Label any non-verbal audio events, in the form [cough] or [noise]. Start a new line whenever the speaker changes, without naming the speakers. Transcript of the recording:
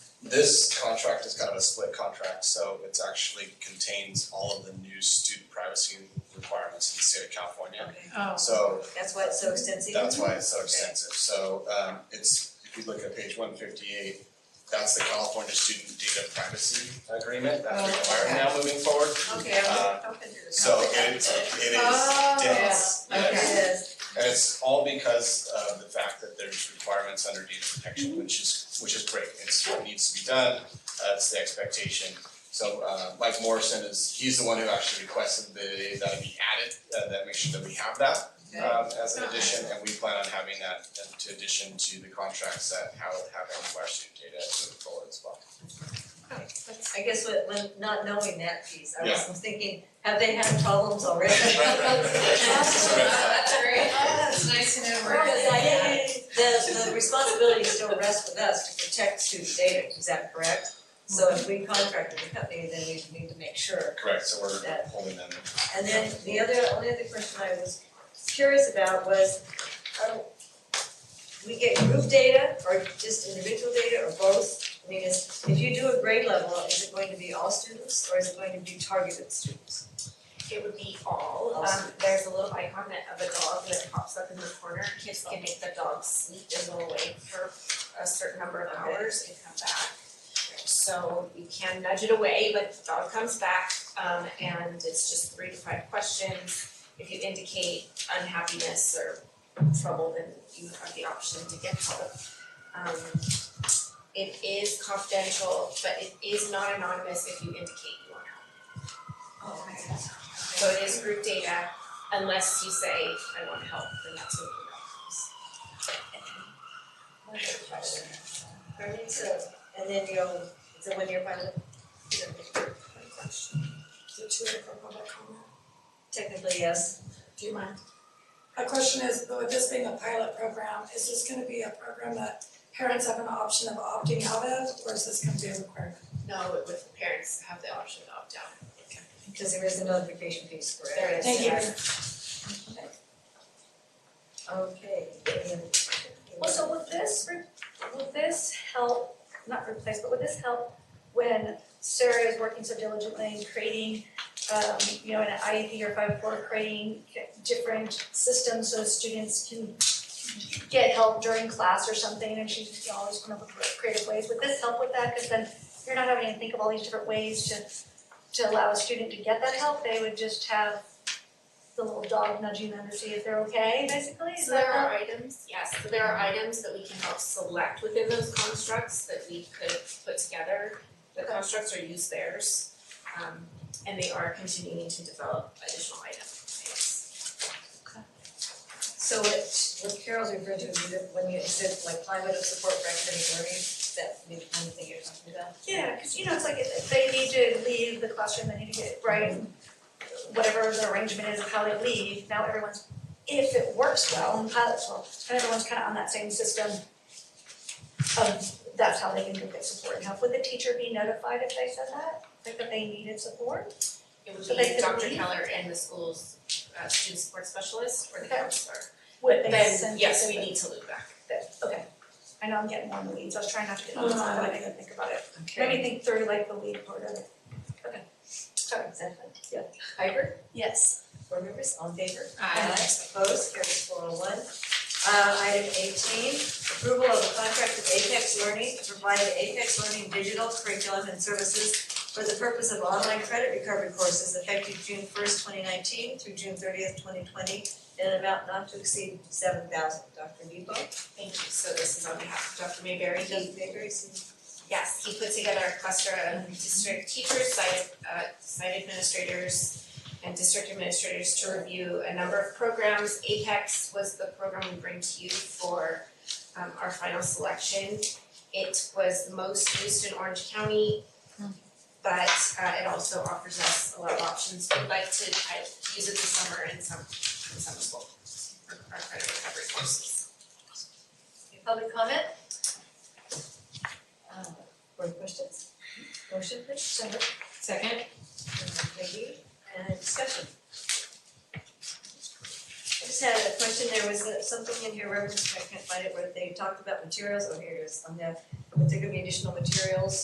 This contract is kind of a split contract, so it actually contains all of the new student privacy requirements in the state of California.
Oh.
So
That's why it's so extensive.
that's why it's so extensive, so um it's, if you look at page one fifty-eight, that's the California Student Data Privacy Agreement,
Oh,
that's required now moving forward.
Okay,
Uh,
I'm open to this.
So it it is
Oh,
dense,
yeah, okay.
yes.
Yes,
And it's all because of the fact that there's requirements under data protection, which is, which is great, it's what needs to be done, uh it's the expectation. So uh Mike Morrison is, he's the one who actually requested the, that it be added, uh, that make sure that we have that um as an addition, and we plan on having that uh, to addition to the contracts that how have all of our student data moving forward as well.
I guess what, when not knowing that piece, I
Yeah.
was thinking, have they had problems already?
Right, right,
[laughs]
right, right.
That's great. That's nice to know where
Because
it
I
is.
think the the responsibility still rests with us to protect student data, is that correct? So if we contract with a company, then we need to make sure.
Correct, so
That-
we're holding them.
And then the other, only other question I was curious about was, are we get group data or just individual data or both? I mean, is, if you do a grade level, is it going to be all students or is it going to be targeted students?
It would be all,
All
um, there's a little icon that of a dog that pops up in the corner, kids can make the dog sleep and go away for a certain number of hours and come back. So you can nudge it away, but the dog comes back, um, and it's just three to five questions. If you indicate unhappiness or trouble, then you have the option to get help. Um, it is confidential, but it is not anonymous if you indicate you want help.
Oh, okay.
So it is group data unless you say, I want help, then that's when group
Alright, so, and then you will it's a one-year pilot,
Is it too late for public comment?
technically, yes.
Do you mind?
My question is, with this being a pilot program, is this gonna be a program that parents have an option of opting out of, or is this gonna be a requirement?
No, it would parents have the option to opt out.
Because there is a notification piece, correct?
There is.
Thank you.
Okay, and-
Well, so would this, re- would this help, not replace, but would this help when Sarah is working so diligently in creating, um, you know, an IEP or five oh four, creating different systems so students can get help during class or something, and she's you know, always coming up with creative ways, would this help with that? Cause then you're not having to think of all these different ways to, to allow a student to get that help, they would just have the little dog nudging them to see if they're okay, basically, is
So
that
there
how-
are items, yes, so there are items that we can help select within those constructs that we could put together. The constructs or use theirs, um, and they are continuing to develop additional items.
so what, what Carol's referred to, is that when you said like climate of support for academic learning, is that maybe one thing you're talking about?
Yeah, because you know, it's like if they need to leave the classroom, they need to get, right, whatever the arrangement is of how they leave, now everyone's, if it works well and pilots well, then everyone's kind of on that same system of that's how they can get support and help. Would the teacher be notified if they said that, like that they needed support?
It
So they
would be
could
Dr.
leave?
Keller and the school's uh student support specialist or the
Okay.
counselor.
Would they
Then,
send
yes,
it
we
to-
need to loop back.
Okay, I know I'm getting more in the weeds, I was trying not to get in
Oh,
the weeds,
no,
I
Uh-huh.
I
didn't
like
even think about it.
Okay.
Let me think through like the lead part of it.
Sorry, exactly, yeah. Hyber,
Yes.
board members, all in favor?
Aye.
Opposed, carries four oh one. Uh, item eighteen, approval of a contract with Apex Learning to provide Apex Learning digital curriculum and services for the purpose of online credit recovery courses effective June first, twenty nineteen through June thirtieth, twenty twenty, in an amount not to exceed seven thousand. Dr. Nebo,
Thank you, so this is on behalf of Dr. Mayberry,
Dr.
he,
Baker, is
yes, he put together a cluster of district teachers, site, uh, site administrators and district administrators to review a number of programs, Apex was the program we bring to you for, um, our final selection. It was the most used in Orange County, but, uh, it also offers us a lot of options, we'd like to, uh use it this summer in some, in summer school, for our credit recovery courses.
Any public comment? Uh, board questions? Motion please, so moved.
Second?
Thank you, and discussion. I just had a question, there was uh, something in here, reference, I can't find it, where they talked about materials, oh, here it is, on the, but there could be additional materials